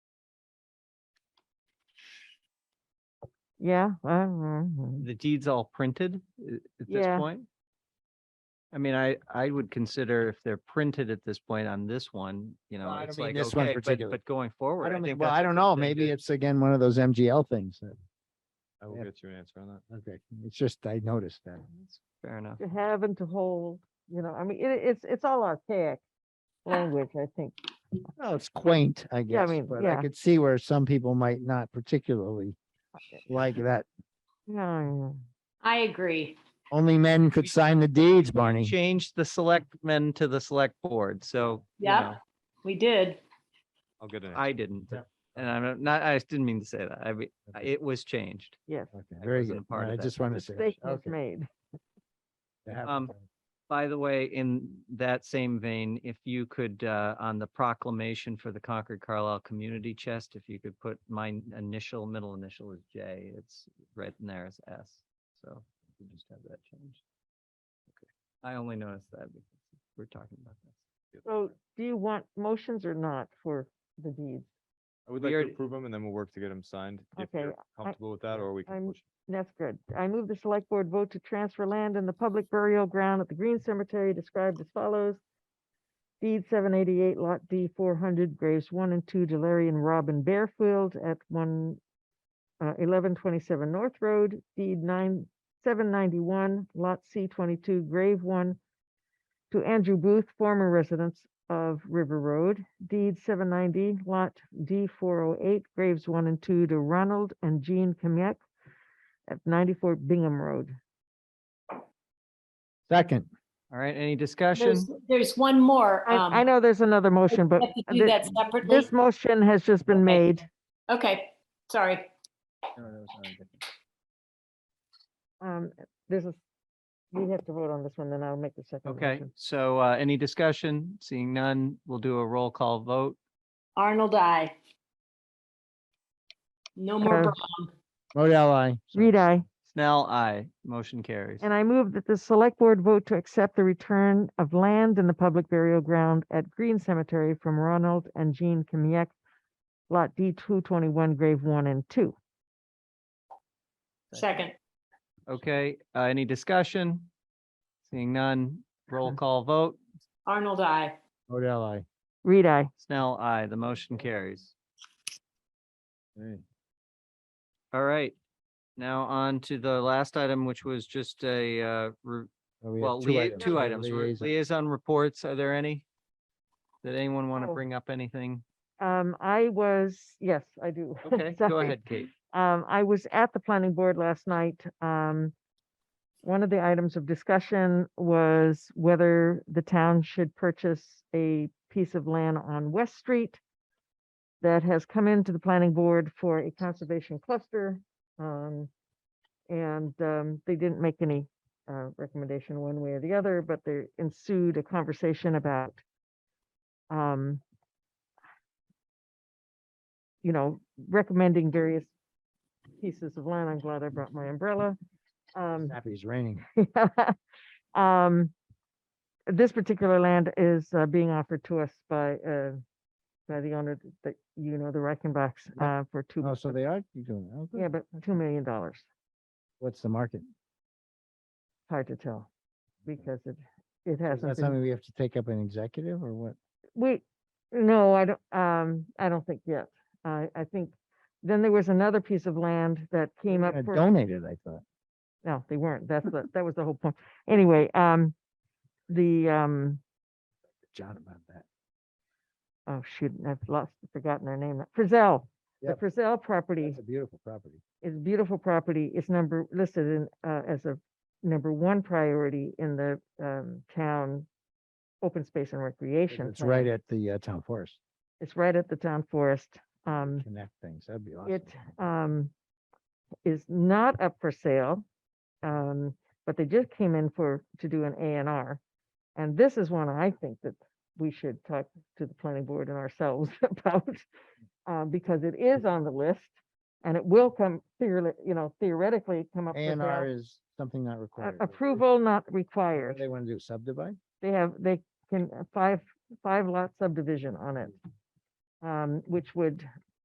Yeah. uh, uh, uh. the deed's all printed i- at this Yeah. point? I mean, I, I would consider if they're printed at this point on this one, you know, I don't it's mean like, this one okay, but, particular. but going forward. I don't, think- think well, that's I a don't good know. thing Maybe to- it's again, one of those MGL things that, I will Yeah. get you an answer on that. okay, it's just, I noticed that. Fair enough. To have and to hold, you know, I mean, it, it's, it's all archaic language, I think. Well, it's quaint, I guess, mean, but Oh, yeah. I could see where some people might not particularly like that. Yeah, I agree. Only men could sign the deeds, Barney. Change the selectmen to the select board, so. you Yep. know, We did. I'll get an answer. I didn't, Yeah. and I'm not, I didn't mean to say that. I mean, it was changed. yes. Okay, Very wasn't good. a part All right, of I that just wanted to say. Mistake was okay, made. to have it Um, done. By the way, in that same vein, if you could, uh, on the proclamation for the Concord Carlisle Community Chest, if you could put my n- initial, middle initial is J, it's right in there as S. So we just have that changed. Okay, I only noticed that because we're talking about this. So do you want motions or not for the deeds? I would we like to already- approve them and then we'll work to get them signed. If you're Okay, comfortable with that, or we I'm- can push. That's good. I move the select board vote to transfer land in the public burial ground at the Green Cemetery described as follows. Deed seven eighty-eight lot D four hundred graves one and two to Larry and Robin Bearfield at one uh, eleven twenty-seven North Road, deed nine, seven ninety-one lot C twenty-two grave one to Andrew Booth, former residents of River Road, deed seven ninety lot D four oh eight graves one and two to Ronald and Jean Kamiec at 94 Bingham Road. Second, All right, any There's, discussion? there's one more. I, um, I know there's another motion, but We have to do thi- that separately. this motion has just been Okay. made. Okay, sorry. Um, There's a, we have to vote on this one, then I'll make the second Okay, motion. so, uh, any discussion? Seeing none, we'll do a roll call vote. Arnold, I. No more Uh, Brown. Modell, I. Reed, I, Snell, I Motion carries. and I move that the select board vote to accept the return of land in the public burial ground at Green Cemetery from Ronald and Jean Kamiec, Lot D 221, Grave 1 and 2. Second. Okay, uh, any discussion? Seeing none, roll call vote. Arnold, I. Modell, I. Reed, I. Snell, I The motion carries. Hey. All right. Now on to the last item, which was just a, uh, re- So we have well, lia- two We have items, We're- liaison. liaison reports. Are there any? Did anyone want to Oh. bring up anything? Um, I was, yes, I do. Okay, go Sorry. ahead, Kate. Um, I was at the planning board last night. Um, one of the items of discussion was whether the town should purchase a piece of land on West Street that has come into the planning board for a conservation cluster. Um, and, um, they didn't make any, uh, recommendation one way or the other, but there ensued a conversation about, um, you know, recommending various pieces of land. I'm glad I brought my umbrella. Um, Happy it's raining. um, this particular land is uh, being offered to us by, uh, by the owner th- that you know, the Reichenbachs, Yeah. uh, for two, Oh, so they are doing, it. oh, yeah, good. but $2 million. dollars. What's the market? Hard to tell because it, it Is that hasn't been, something we have to take up an executive or what? we, no, I don't, um, I don't think yet. I, I think, then there was another piece of land that came up Gonna for. Donate it, I thought. No, they weren't. That's the, that was the whole point. Anyway, um, the, um, John about that. oh shoot, I've lost, forgotten their name. Frizzell. The Yep. Frizzell property It's a beautiful property. is beautiful property. It's number, listed in, uh, as a number one priority in the, um, town open space and recreation. It's right plan. at the uh, town forest. It's right at the town forest. Um, Connect things. That'd be awesome. it um is not up for sale. Um, but they just came in for, to do an A and R. And this is one I think that we should talk to the planning board and ourselves about. Uh, because it is on the list and it will come theoretically, you know, theoretically come up A for and R sale. is something not A- required. Approval not What do required. they want to do? Subdivide? They have, they can, uh, five, five lot subdivision on it. Um, which would